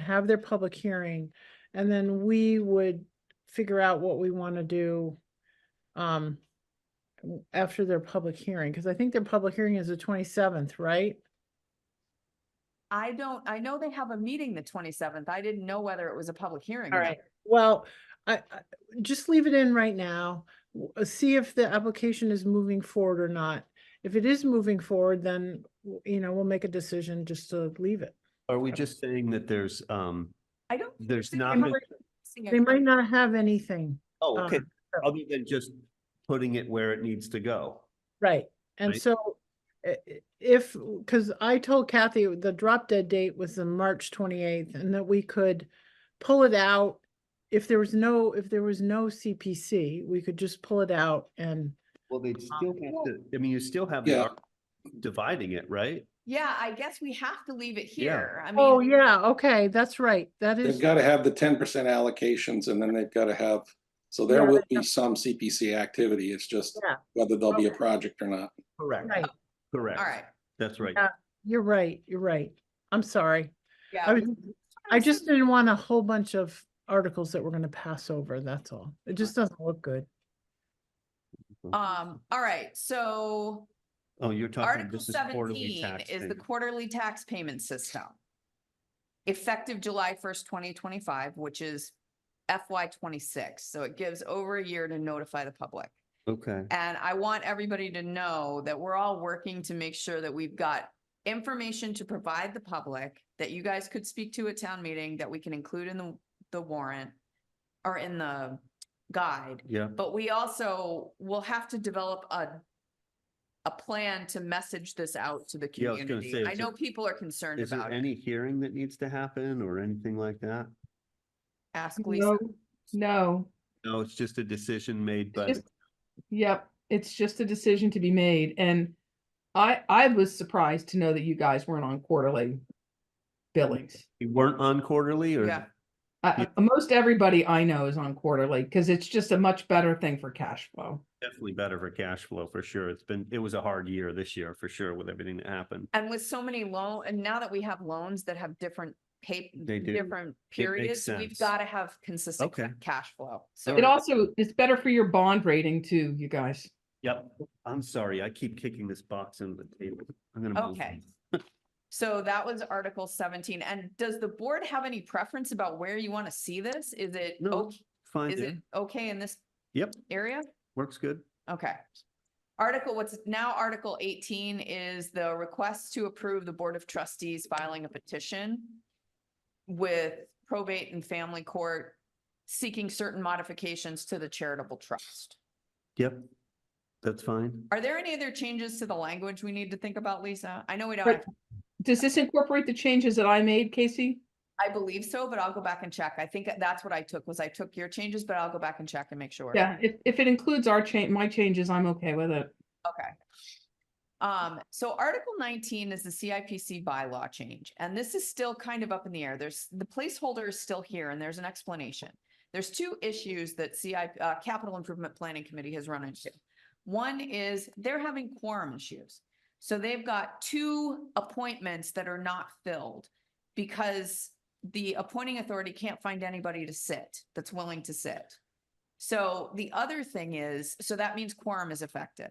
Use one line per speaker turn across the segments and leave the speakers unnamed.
have their public hearing, and then we would figure out what we want to do um, w- after their public hearing, because I think their public hearing is the twenty-seventh, right?
I don't, I know they have a meeting the twenty-seventh. I didn't know whether it was a public hearing.
All
or not.
right, well, I, I- just leave it in right now. w- uh, See if the application is moving forward or not. If it is moving forward, then, w- you know, we'll make a decision just to leave it.
Are we just saying that there's, um,
I don't. think
there's
they
not,
have
been-
a meeting
They might
account.
not have anything,
oh,
uh,
okay, other than just putting it where it needs to go?
right? And
Right.
so i- i- if, because I told Kathy the drop dead date was the March twenty-eighth and that we could pull it out. If there was no, if there was no CPC, we could just pull it out and
Well,
Uh,
they'd still have
well-
to, I mean, you still have the
Yeah.
ar- dividing it, right?
Yeah, I guess we have to leave it
Yeah.
here. I mean.
Oh, yeah, okay, that's right. That is.
They've got to have the ten percent allocations and then they've got to have, so there
Yeah,
will be some CPC activity. It's just
Yeah.
whether there'll be a project or not.
Correct.
Right,
Correct.
All right.
That's right.
Yeah. you're right, you're right. I'm sorry.
Yeah.
I was, I
Understood.
just didn't want a whole bunch of articles that we're gonna pass over, that's all. It just doesn't look good.
Um, all right, so
Oh, you're talking,
Article
this is quarterly
seventeen
tax.
is the
payment.
quarterly tax payment system. Effective July first, twenty twenty-five, which is FY twenty-six, so it gives over a year to notify the public.
Okay,
And I want everybody to know that we're all working to make sure that we've got information to provide the public that you guys could speak to at town meeting, that we can include in the, the warrant or in the guide.
yeah,
But we also will have to develop a, a plan to message this out to the
Yeah, I was gonna
community.
say,
I
is it-
know people are concerned
is there
about it.
any hearing that needs to happen or anything like that?
Ask Lisa.
No, no,
No, it's just a decision made by,
just- yep, it's just a decision to be made and I, I was surprised to know that you guys weren't on quarterly billings.
you weren't on quarterly or?
Yeah.
Uh, most everybody I know is on quarterly because it's just a much better thing for cash flow.
Definitely better for cash flow, for sure. It's been, it was a hard year this year, for sure, with everything that happened.
And with so many loan, and now that we have loans that have different pay,
They do.
different periods, we've
sense.
got to have consistent ca-
Okay.
cash flow. So
It also, it's better for your bond rating too, you guys.
Yep, I'm sorry, I keep kicking this box into the table. I'm gonna move.
Okay. So that was Article seventeen. And does the board have any preference about where you want to see this? Is it,
No,
ok-
Fine,
is
yeah,
it okay in this
Yep.
area?
works good.
Okay. Article, what's now Article eighteen is the request to approve the Board of Trustees filing a petition with probate and family court seeking certain modifications to the charitable trust.
Yep, that's fine.
Are there any other changes to the language we need to think about, Lisa? I know we
But
don't,
Does this incorporate the changes that I made, Casey?
I believe so, but I'll go back and check. I think that's what I took was I took your changes, but I'll go back and check and make sure.
Yeah, if, if it includes our change, my changes, I'm okay with it.
Okay. Um, so Article nineteen is the CIPC bylaw change, and this is still kind of up in the air. There's, the placeholder is still here and there's an explanation. There's two issues that CI, uh, Capital Improvement Planning Committee has run into. One is they're having quorum issues. So they've got two appointments that are not filled because the appointing authority can't find anybody to sit that's willing to sit. So the other thing is, so that means quorum is affected.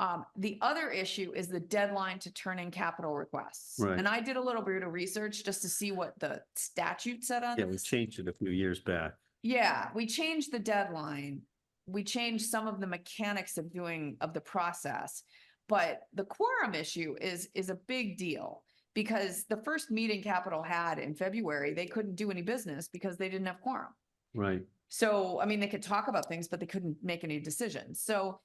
Um, the other issue is the deadline to turn in capital requests.
Right.
And I did a little bit of research just to see what the statute said on
Yeah, we
this.
changed it a few years back.
Yeah, we changed the deadline. We changed some of the mechanics of doing of the process. But the quorum issue is is a big deal because the first meeting Capital had in February, they couldn't do any business because they didn't have quorum.
Right,
So, I mean, they could talk about things, but they couldn't make any decisions. So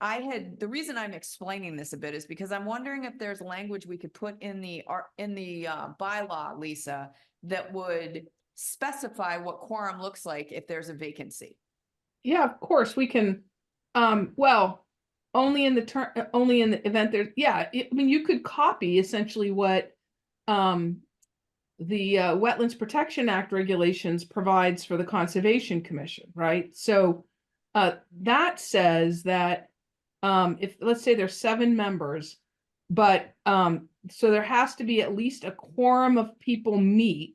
I had, the reason I'm explaining this a bit is because I'm wondering if there's language we could put in the, ar- in the uh, bylaw, Lisa, that would specify what quorum looks like if there's a vacancy.
Yeah, of course, we can, um, well, only in the turn, uh, only in the event there's, yeah, I I mean, you could copy essentially what um the uh, Wetlands Protection Act regulations provides for the Conservation Commission, right? So uh, that says that um, if, let's say there's seven members, but um, so there has to be at least a quorum of people meet